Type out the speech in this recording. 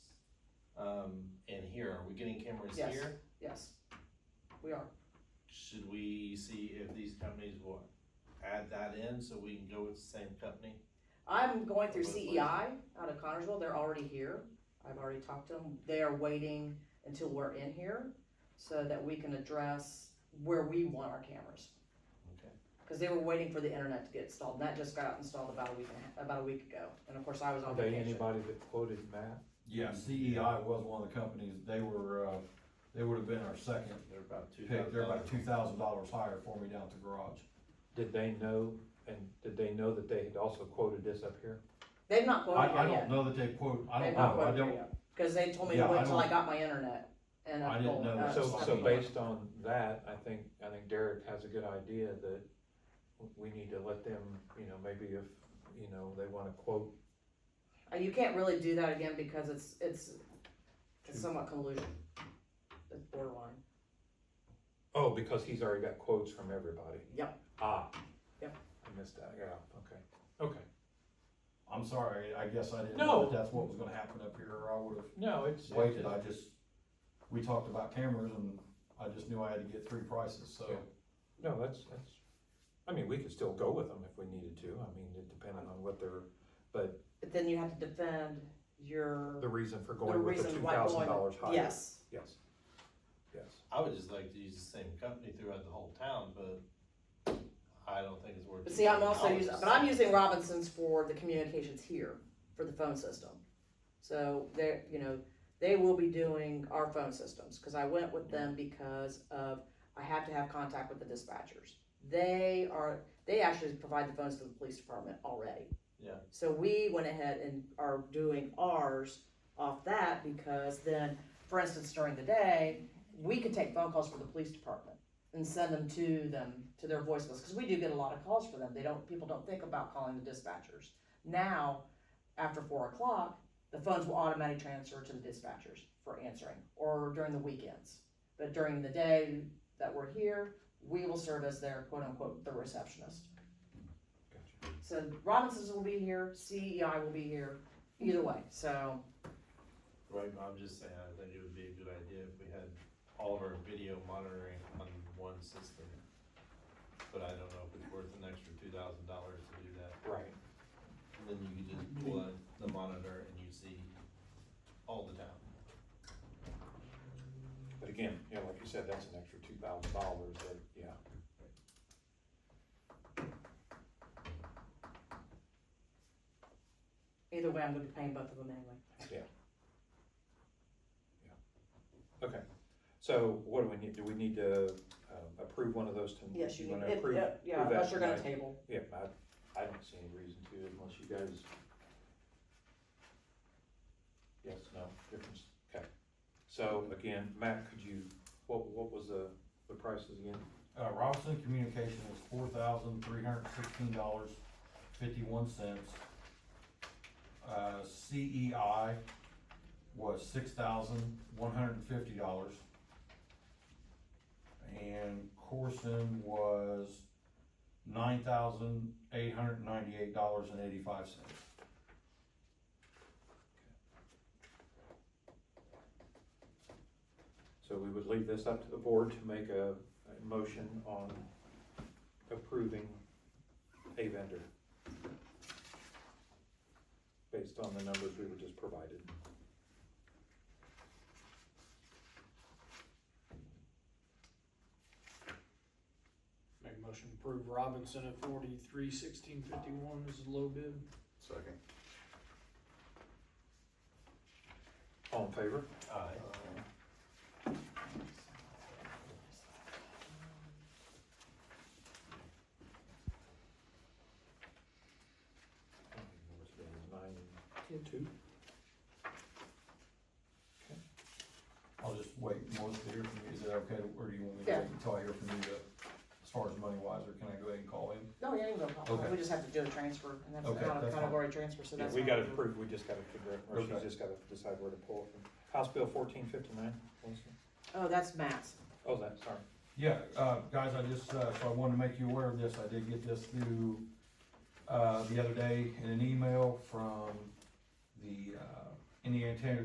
um, and here, are we getting cameras Yes. here? yes, we are. Should we see if these companies will add that in so we can go with the same company? I'm going through What- what is CEI out of Connersville, they're already here, I've already talked to them, they are waiting until we're in here so that we can address where we want our cameras, Okay, cause they were waiting for the internet to get installed, and that just got installed about a week, and a- about a week ago, and of course, I was Are on they vacation. anybody that quoted Matt? Yeah, CEI was one of the companies, they were, uh, they would have been our second they're about two pick, thousand. they're about two thousand dollars higher for me down at the garage. Did they know, and did they know that they had also quoted this up here? They've not I, quoted I her yet, don't know that Oh, they quote, I they've don't not know, I quoted her don't, yet, cause they told me to Yeah, I wait till I don't- got my internet and. I didn't upload- know. uh, So, so upload. based on that, I think, I think Derek has a good idea that we need to let them, you know, maybe if, you know, they wanna quote. Uh, You can't really do that again because it's, it's, it's somewhat collusion, it's borderline. Oh, because he's already got quotes from everybody. Yep. Ah. Yep. I missed that, yeah, okay, okay. I'm sorry, I guess I didn't No. know that that's what was gonna happen up here, or I would have No, it's. waited, I just, we talked about cameras and I just knew I had to get three prices, so. Yeah. No, that's, that's, I mean, we could still go with them if we needed to, I mean, it depending on what their, But then you have to defend your, the reason for The going with the two reason why going- thousand dollars higher. yes, Yes, yes. I would just like to use the same company throughout the whole town, but I don't think it's worth. but see, I'm also $2,000. using, but I'm using Robinson's for the communications here, for the phone system. So they're, you know, they will be doing our phone systems, cause I went with them because of, I have to have contact with the dispatchers. They are, they actually provide the phones to the police department already. Yeah. So we went ahead and are doing ours off that because then, for instance, during the day, we could take phone calls for the police department and send them to them to their voicemails because we do get a lot of calls for them. They don't people don't think about calling the dispatchers. Now, after four o'clock, the phones will automatically transfer to the dispatchers for answering or during the weekends. But during the day that we're here, we will serve as their quote unquote the receptionist. Gotcha. So Robinsons will be here, CEI will be here, either way. So Right, but I'm just saying, I think it would be a good idea if we had all of our video monitoring on one system. But I don't know if it's worth an extra two thousand dollars to do that. Right. And then you could just pull out the monitor and you see all the town. But again, yeah, like you said, that's an extra two thousand dollars that, yeah. either way, I'm going to be paying both of them anyway. So what do we need, do we need to um, approve one of those? to- Yes, you wanna can, it- approve- yeah, yeah, approve that unless you're gonna tonight? table. Yeah, I, I don't see any reason to unless you guys. Yes, no, difference, okay. So again, Matt, could you, what, what was the, the prices again? Uh, Robinson Communication was four thousand three hundred sixteen dollars fifty-one cents. Uh, CEI was six thousand one hundred and fifty dollars. And Corson was nine thousand eight hundred ninety-eight dollars and eighty-five cents. So we would leave this up to the board to make a, a motion on approving a vendor based on the numbers we were just provided. Make a motion to approve Robinson at forty-three sixteen fifty-one is the low bid. Second. All in favor? Aye. I don't even know what's been, nine, two? I'll just wait, most to hear from you, is it okay, to- or do you want me to Yeah. wait until I hear from you to, as far as money wise, or can I go ahead and call him? No, yeah, you can go, Okay. we just have to do a transfer, and that's Okay, not a that's fine. category transfer, so Yeah, that's. we not- gotta approve, we just gotta figure out, or she's Okay. just gotta decide where to pull it from. House Bill fourteen fifty-nine, Oh, that's Matt's. oh, that, sorry. Yeah, uh, guys, I just, uh, so I wanted to make you aware of this, I did get this through, uh, the other day in an email from the, uh, Indiana Tanner